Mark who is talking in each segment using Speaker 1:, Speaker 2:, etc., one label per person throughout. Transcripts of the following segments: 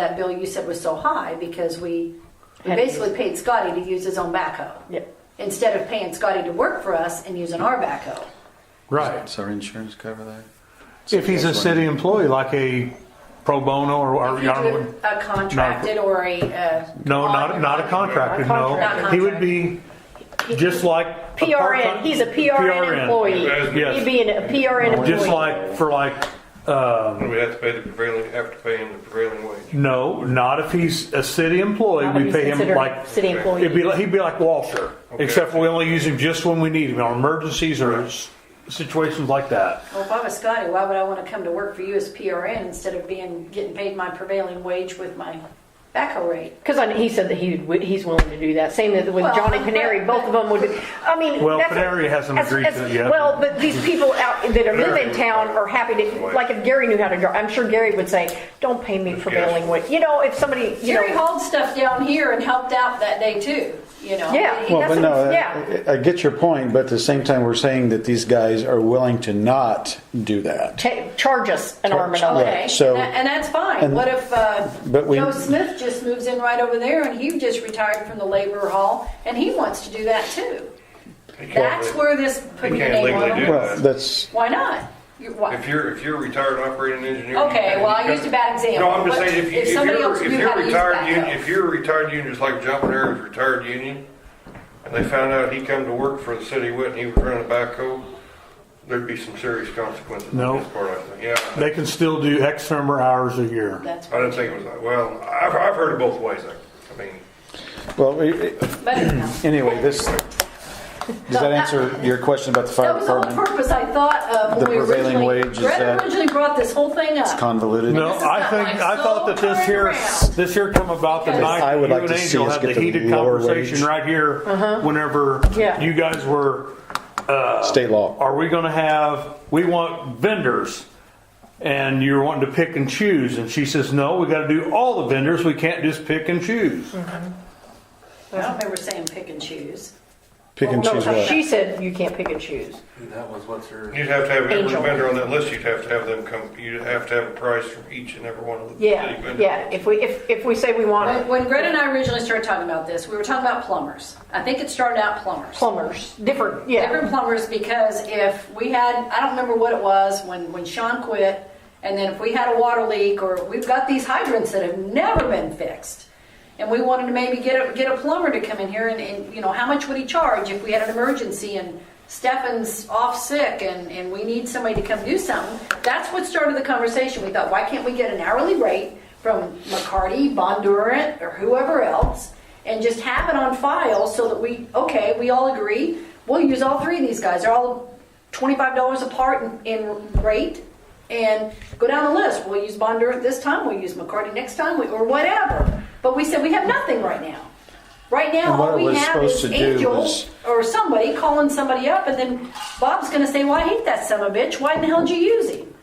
Speaker 1: that bill you said was so high because we, we
Speaker 2: Had to
Speaker 1: basically paid Scotty to use his own backhoe.
Speaker 2: Yep.
Speaker 1: Instead of paying Scotty to work for us and using our backhoe.
Speaker 3: Right.
Speaker 4: Does our insurance cover that?
Speaker 3: If he's a city employee, like a pro bono or, or
Speaker 1: If you do a contracted or a, uh.
Speaker 3: no, not not a contractor. No,
Speaker 1: Not
Speaker 3: he would be just like a part-time-
Speaker 2: PRN, he's a PRN employee.
Speaker 3: Yes.
Speaker 2: He'd be an- a PRN employee.
Speaker 3: Just like for like
Speaker 5: Do we have to pay the prevailing, have to pay him the prevailing wage?
Speaker 3: no, not if he's a city employee.
Speaker 2: Not if
Speaker 3: we
Speaker 2: he's
Speaker 3: pay him
Speaker 2: considered
Speaker 3: like
Speaker 2: City employee.
Speaker 3: It'd be like, he'd be like Walter,
Speaker 5: Okay.
Speaker 3: except for we only use him just when we need him on emergencies or s- situations like that.
Speaker 1: Well, if I was Scotty, why would I want to come to work for you as PRN instead of being, getting paid my prevailing wage with my backhoe rate?
Speaker 2: Because he said that he would, he's willing to do that. Same with with
Speaker 1: Well,
Speaker 2: Johnny
Speaker 1: but-
Speaker 2: Paneri, both of them would be, I mean.
Speaker 3: Well,
Speaker 2: that's a-
Speaker 3: Paneri hasn't
Speaker 2: as-
Speaker 3: agreed
Speaker 2: as-
Speaker 3: to it yet.
Speaker 2: Well, but these people out that are living
Speaker 5: Paneri-
Speaker 2: town are happy to, like if Gary knew how to drive, I'm sure Gary would say, don't pay me prevailing wage. You know, if somebody, you
Speaker 1: Jerry
Speaker 2: know.
Speaker 1: hauled stuff down here and helped out that day too, you know?
Speaker 2: Yeah.
Speaker 1: He-
Speaker 4: Well,
Speaker 2: That's
Speaker 4: but
Speaker 2: what
Speaker 4: no,
Speaker 2: I'm-
Speaker 4: I- I I get your point, but at the same time, we're saying that these guys are willing to not do that.
Speaker 2: ta- Charge us an arm and a
Speaker 4: Right.
Speaker 1: Okay,
Speaker 2: leg.
Speaker 4: so-
Speaker 1: and that- and that's fine.
Speaker 4: and-
Speaker 1: What if uh,
Speaker 4: But we-
Speaker 1: Joe Smith just moves in right over there and he just retired from the labor hall and he wants to do that too?
Speaker 5: He can't
Speaker 1: That's
Speaker 5: really-
Speaker 1: where this putting your
Speaker 5: can't
Speaker 1: name
Speaker 5: legally
Speaker 1: on
Speaker 5: do
Speaker 1: it.
Speaker 5: that.
Speaker 4: Well, that's,
Speaker 1: Why not? You- why-
Speaker 5: If you're, if you're a retired operating engineer. you
Speaker 1: Okay,
Speaker 5: can-
Speaker 1: well, I
Speaker 5: you
Speaker 1: used
Speaker 5: can-
Speaker 1: a bad example.
Speaker 5: No, I'm just
Speaker 1: What-
Speaker 5: saying, if you-
Speaker 1: if
Speaker 5: if you're,
Speaker 1: somebody else
Speaker 5: if
Speaker 1: knew
Speaker 5: you're
Speaker 1: how to use
Speaker 5: retired,
Speaker 1: that,
Speaker 5: union-
Speaker 1: though.
Speaker 5: if you're a retired union, just like John Panera was retired union, and they found out he come to work for the city of Whitney, he was running a backhoe, there'd be some serious consequences
Speaker 3: No.
Speaker 5: on his part, I think, yeah.
Speaker 3: They can still do X number of hours a year.
Speaker 1: That's,
Speaker 5: I didn't think it was that, well, I've, I've heard it both ways, I- I mean,
Speaker 4: well, we- we-
Speaker 1: but anyhow.
Speaker 4: anyway, this, does that answer your question about the
Speaker 1: That
Speaker 4: fire
Speaker 1: was the whole
Speaker 4: department?
Speaker 1: purpose I thought of
Speaker 4: The
Speaker 1: when we
Speaker 4: prevailing
Speaker 1: originally,
Speaker 4: wage is
Speaker 1: Greta
Speaker 4: that-
Speaker 1: originally brought this whole thing up.
Speaker 4: Convoluted?
Speaker 3: No,
Speaker 1: This is
Speaker 3: I
Speaker 1: not
Speaker 3: think,
Speaker 1: like
Speaker 3: I thought that this
Speaker 1: so
Speaker 3: here,
Speaker 1: round.
Speaker 3: this here come about the
Speaker 1: Yes.
Speaker 3: night
Speaker 4: I
Speaker 3: that
Speaker 4: would
Speaker 3: you
Speaker 4: like
Speaker 3: and
Speaker 4: to see
Speaker 3: Angel
Speaker 4: us
Speaker 3: had the
Speaker 4: get the
Speaker 3: heated
Speaker 4: lower
Speaker 3: conversation
Speaker 4: wage.
Speaker 3: right here,
Speaker 1: Uh-huh.
Speaker 3: whenever
Speaker 2: Yeah.
Speaker 3: you guys were,
Speaker 4: State law.
Speaker 3: are we gonna have, we want vendors. And you're wanting to pick and choose, and she says, no, we gotta do all the vendors, we can't just pick and choose.
Speaker 1: I don't remember saying pick and choose.
Speaker 4: Pick and
Speaker 2: No,
Speaker 4: choose what.
Speaker 2: She said you can't pick and choose.
Speaker 6: That was what's her.
Speaker 5: you'd have to have every
Speaker 2: Angel.
Speaker 5: vendor on that list, you'd have to have them come, you'd have to have a price from each and every one of the city
Speaker 2: Yeah,
Speaker 5: vendors.
Speaker 2: yeah, if we, if, if we say we want
Speaker 1: When, when Greta and I originally started talking about this, we were talking about plumbers. I think it started out plumbers.
Speaker 2: plumbers, different, yeah.
Speaker 1: Different plumbers because if we had, I don't remember what it was when, when Sean quit, and then if we had a water leak or we've got these hydrants that have never been fixed. And we wanted to maybe get a, get a plumber to come in here and, and, you know, how much would he charge if we had an emergency and Stefan's off sick and, and we need somebody to come do something? That's what started the conversation. We thought, why can't we get an hourly rate from McCarty, Bondurant, or whoever else? and just have it on file so that we, okay, we all agree, we'll use all three of these guys. They're all twenty-five dollars apart in, in rate. And go down the list. We'll use Bonder this time, we'll use McCarty next time, we- or whatever. But we said we have nothing right now. Right now,
Speaker 4: And what
Speaker 1: all
Speaker 4: it
Speaker 1: we
Speaker 4: was
Speaker 1: have
Speaker 4: supposed
Speaker 1: is
Speaker 4: to do
Speaker 1: Angel
Speaker 4: was-
Speaker 1: or somebody calling somebody up and then Bob's gonna say, well, I hate that son of a bitch. Why in the hell did you use him?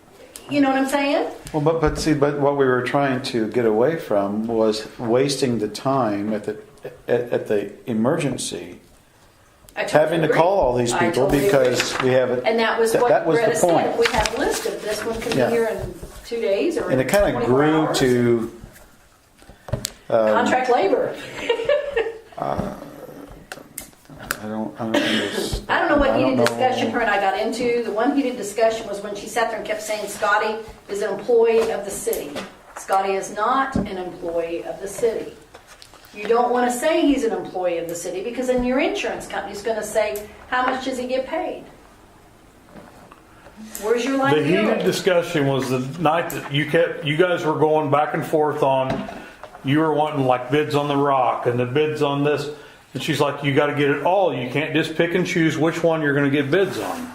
Speaker 1: You know what I'm saying?
Speaker 4: Well, but, but see, but what we were trying to get away from was wasting the time at the, at, at the emergency,
Speaker 1: I totally
Speaker 4: having to
Speaker 1: agree.
Speaker 4: call all these
Speaker 1: I
Speaker 4: people
Speaker 1: totally agree.
Speaker 4: because we haven't.
Speaker 1: And that was what
Speaker 4: that was the
Speaker 1: Greta said,
Speaker 4: point.
Speaker 1: we have a list of this one could be
Speaker 4: Yeah.
Speaker 1: here in two days or
Speaker 4: And it kind of
Speaker 1: 24
Speaker 4: grew
Speaker 1: hours.
Speaker 4: to um,
Speaker 1: Contract labor.
Speaker 4: I don't. I don't, understand.
Speaker 1: I don't know what heated
Speaker 4: know.
Speaker 1: discussion her and I got into. The one heated discussion was when she sat there and kept saying Scotty is an employee of the city. Scotty is not an employee of the city. You don't want to say he's an employee of the city because then your insurance company's going to say, how much does he get paid? Where's your
Speaker 3: The
Speaker 1: liability?
Speaker 3: heated discussion was the night that you kept, you guys were going back and forth on, you were wanting like bids on the rock and the bids on this. And she's like, you gotta get it all. You can't just pick and choose which one you're gonna get bids on.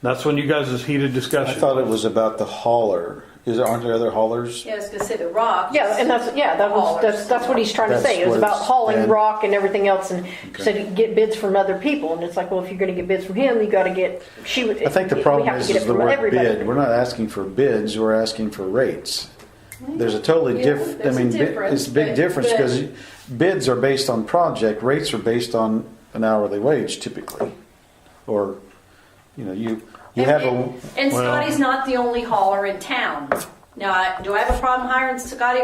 Speaker 3: That's when you guys' heated
Speaker 4: I
Speaker 3: discussion.
Speaker 4: thought it was about the hauler. Is there, aren't there other haulers?
Speaker 1: Yeah, I was going to say the rock.
Speaker 2: Yeah, and that's, yeah, that was, that's, that's what he's trying to say. It was
Speaker 4: That's what
Speaker 2: about
Speaker 4: it's
Speaker 2: hauling
Speaker 4: been.
Speaker 2: rock and everything else and said, get bids from other people. And it's like, well, if you're gonna get bids from him, you gotta get, she would.
Speaker 4: I think the
Speaker 2: we
Speaker 4: problem
Speaker 2: have to
Speaker 4: is,
Speaker 2: get it
Speaker 4: is the
Speaker 2: from
Speaker 4: word
Speaker 2: everybody.
Speaker 4: bid. We're not asking for bids. We're asking for rates. There's a totally
Speaker 1: Yeah,
Speaker 4: different. I
Speaker 1: there's a
Speaker 4: mean, bi-
Speaker 1: difference,
Speaker 4: it's a big
Speaker 1: but-
Speaker 4: difference
Speaker 1: but-
Speaker 4: because bids are based on project. Rates are based on an hourly wage typically, or you know, you you
Speaker 1: And-
Speaker 4: have a
Speaker 1: and, and Scotty's not the only hauler in town. Now, I- do I have a problem hiring Scotty